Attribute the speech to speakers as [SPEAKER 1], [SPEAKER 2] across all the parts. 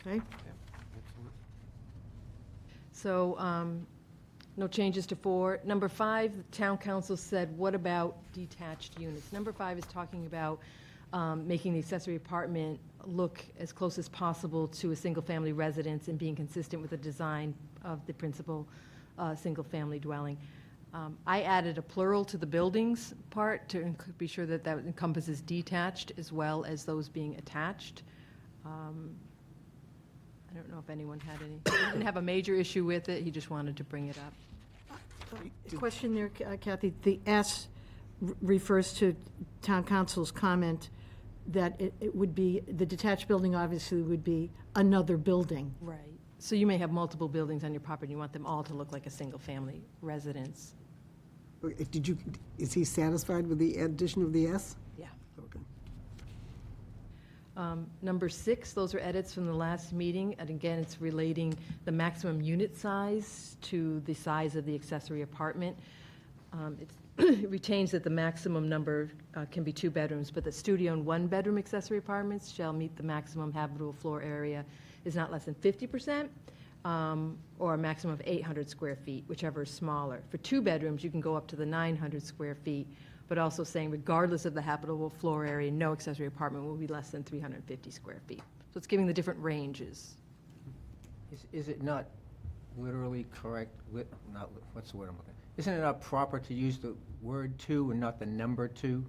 [SPEAKER 1] Okay, so um, no changes to four. Number five, the town council said, what about detached units? Number five is talking about um, making the accessory apartment look as close as possible to a single-family residence and being consistent with the design of the principal uh, single-family dwelling. Um, I added a plural to the buildings part to enc- be sure that that encompasses detached as well as those being attached. Um, I don't know if anyone had any, he didn't have a major issue with it, he just wanted to bring it up.
[SPEAKER 2] Question there, uh, Kathy. The S re- refers to town council's comment that it it would be, the detached building obviously would be another building.
[SPEAKER 1] Right. So you may have multiple buildings on your property, and you want them all to look like a single-family residence.
[SPEAKER 3] Okay, Did you, is he satisfied with the addition of the S?
[SPEAKER 1] Yeah.
[SPEAKER 3] Okay.
[SPEAKER 1] Um, Number six, those are edits from the last meeting, and again, it's relating the maximum unit size to the size of the accessory apartment. Um, it's- It retains that the maximum number uh, can be two bedrooms, but the studio and one-bedroom accessory apartments shall meet the maximum habitable floor area is not less than 50%, um, or a maximum of 800 square feet, whichever is smaller. For two bedrooms, you can go up to the 900 square feet, but also saying regardless of the habitable floor area, no accessory apartment will be less than 350 square feet. So it's giving the different ranges.
[SPEAKER 4] Is, is it not literally correct, lit, not, lit- what's the word I'm looking, isn't it not proper to use the word "to" and not the number "to"?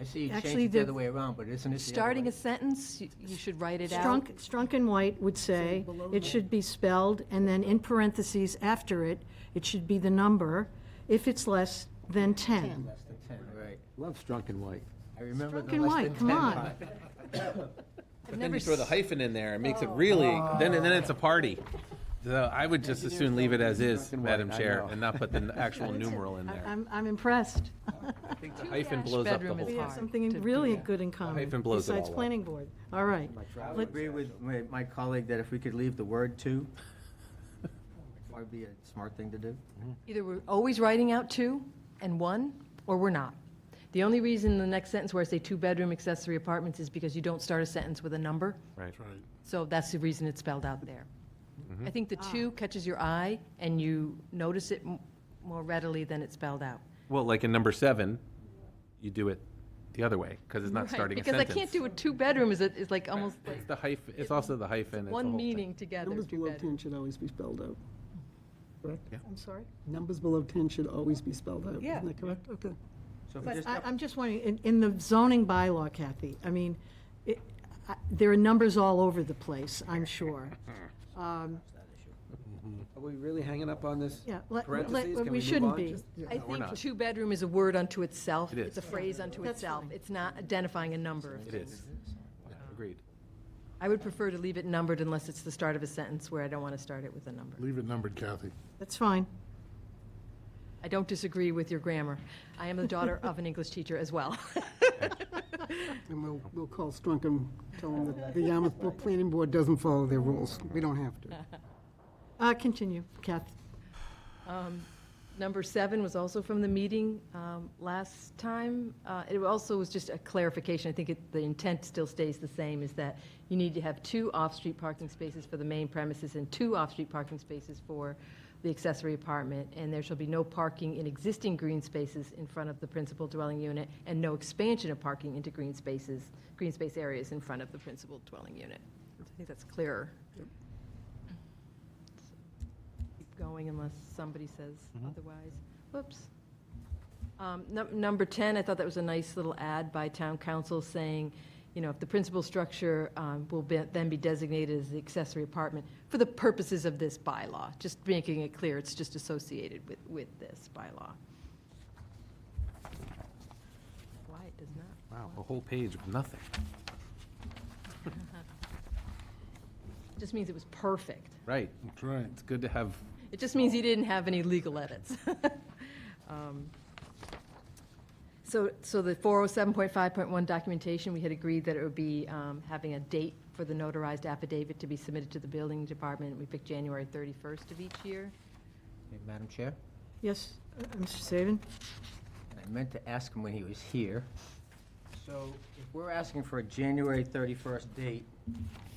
[SPEAKER 4] I see you changed
[SPEAKER 2] Actually,
[SPEAKER 4] it the
[SPEAKER 2] the-
[SPEAKER 4] other way around, but isn't it the other
[SPEAKER 1] Starting
[SPEAKER 4] way?
[SPEAKER 1] a sentence, you- you should write it out.
[SPEAKER 2] Strunk, Strunk and White would say, it should be spelled, and then in parentheses after it, it should be the number, if it's less than 10.
[SPEAKER 4] Less than ten, right.
[SPEAKER 5] Love Strunk and White.
[SPEAKER 4] I remember
[SPEAKER 2] Strunk
[SPEAKER 4] the
[SPEAKER 2] and
[SPEAKER 4] less
[SPEAKER 2] white,
[SPEAKER 4] than
[SPEAKER 2] come
[SPEAKER 4] ten
[SPEAKER 2] on.
[SPEAKER 4] part.
[SPEAKER 1] I've
[SPEAKER 6] But then
[SPEAKER 1] never
[SPEAKER 6] you throw the
[SPEAKER 1] s- Oh.
[SPEAKER 6] hyphen in there, it makes it really, then, and then it's a party. So I would just as soon leave it as is,
[SPEAKER 5] Black and white,
[SPEAKER 6] Madam
[SPEAKER 5] I
[SPEAKER 6] Chair,
[SPEAKER 5] know.
[SPEAKER 6] and not put the actual numeral in
[SPEAKER 2] I-
[SPEAKER 6] there.
[SPEAKER 2] I'm, I'm impressed.
[SPEAKER 6] I think the hyphen
[SPEAKER 1] dash
[SPEAKER 6] blows up the
[SPEAKER 1] bedroom is
[SPEAKER 6] whole
[SPEAKER 2] We
[SPEAKER 6] thing.
[SPEAKER 2] have
[SPEAKER 1] hard
[SPEAKER 2] something
[SPEAKER 1] to
[SPEAKER 2] really
[SPEAKER 1] do.
[SPEAKER 2] good in common,
[SPEAKER 6] Hyphen blows it
[SPEAKER 2] besides
[SPEAKER 6] all up.
[SPEAKER 2] planning board. All right.
[SPEAKER 4] I would
[SPEAKER 2] Let-
[SPEAKER 4] agree with my, my colleague that if we could leave the word "to," that'd be a smart thing to do.
[SPEAKER 1] Either we're always writing out two and one, or we're not. The only reason the next sentence where I say two-bedroom accessory apartments is because you don't start a sentence with a number.
[SPEAKER 6] Right. Mm-hmm.
[SPEAKER 1] So that's the reason it's spelled out there. I think the two catches your eye, and you notice it m- more readily than it's spelled out.
[SPEAKER 6] Well, like in number seven, you do it the other way, because it's not
[SPEAKER 1] Right,
[SPEAKER 6] starting a
[SPEAKER 1] Because I
[SPEAKER 6] sentence.
[SPEAKER 1] can't do a two-bedroom, is it, is like almost like
[SPEAKER 6] It's the hyphen, it's also the hyphen, it's the whole
[SPEAKER 1] one
[SPEAKER 6] thing.
[SPEAKER 1] meaning together,
[SPEAKER 3] Numbers below
[SPEAKER 1] two-bedroom.
[SPEAKER 3] 10 should always be spelled out.
[SPEAKER 2] I'm sorry?
[SPEAKER 3] Numbers below 10 should always be spelled out.
[SPEAKER 2] Yeah.
[SPEAKER 3] Isn't that correct? Okay.
[SPEAKER 4] So if we
[SPEAKER 2] But
[SPEAKER 4] just
[SPEAKER 2] I,
[SPEAKER 4] up-
[SPEAKER 2] I'm just wondering, in, in the zoning bylaw, Kathy, I mean, it, I- there are numbers all over the place, I'm sure. Um,
[SPEAKER 5] Are we really hanging up on this?
[SPEAKER 2] Yeah, let- let-
[SPEAKER 5] Parentheses, can
[SPEAKER 2] we
[SPEAKER 5] move
[SPEAKER 2] shouldn't
[SPEAKER 5] on?
[SPEAKER 2] be.
[SPEAKER 5] Just-
[SPEAKER 1] I
[SPEAKER 6] we're
[SPEAKER 1] think
[SPEAKER 6] not.
[SPEAKER 1] two-bedroom is a word unto itself.
[SPEAKER 6] It is.
[SPEAKER 1] It's a phrase unto
[SPEAKER 2] That's
[SPEAKER 1] itself.
[SPEAKER 2] fine.
[SPEAKER 1] It's not identifying a number. of
[SPEAKER 6] It
[SPEAKER 1] things.
[SPEAKER 6] is. Yeah, Agreed.
[SPEAKER 1] I would prefer to leave it numbered unless it's the start of a sentence where I don't want to start it with a number.
[SPEAKER 7] Leave it numbered, Kathy.
[SPEAKER 2] That's fine.
[SPEAKER 1] I don't disagree with your grammar. I am the daughter of an English teacher as well.
[SPEAKER 3] And we'll, we'll call Strunk and tell him that the Yarmouth Bo- Planning Board doesn't follow their rules. We don't have to.
[SPEAKER 2] Uh, continue, Kathy.
[SPEAKER 1] Um, Number seven was also from the meeting um, last time. Uh, It also was just a clarification. I think it- the intent still stays the same, is that you need to have two off-street parking spaces for the main premises and two off-street parking spaces for the accessory apartment, and there shall be no parking in existing green spaces in front of the principal dwelling unit, and no expansion of parking into green spaces, green space areas in front of the principal dwelling unit. So I think that's clearer. keep going unless somebody says otherwise. Whoops. Um, num- Number 10, I thought that was a nice little ad by town council saying, you know, if the principal structure um, will be- then be designated as the accessory apartment for the purposes of this bylaw, just making it clear, it's just associated with, with this bylaw. Why it does not.
[SPEAKER 6] Wow, a whole page of nothing.
[SPEAKER 1] Just means it was perfect.
[SPEAKER 6] Right.
[SPEAKER 7] That's right.
[SPEAKER 6] It's good to have
[SPEAKER 1] It just means he didn't have any legal edits. Um, So, so the 407.5.1 documentation, we had agreed that it would be um, having a date for the notarized affidavit to be submitted to the building department. We picked January 31st of each year.
[SPEAKER 4] Madam Chair?
[SPEAKER 2] Yes, uh, Mr. Saban?
[SPEAKER 4] And I meant to ask him when he was here. So if we're asking for a January 31st date,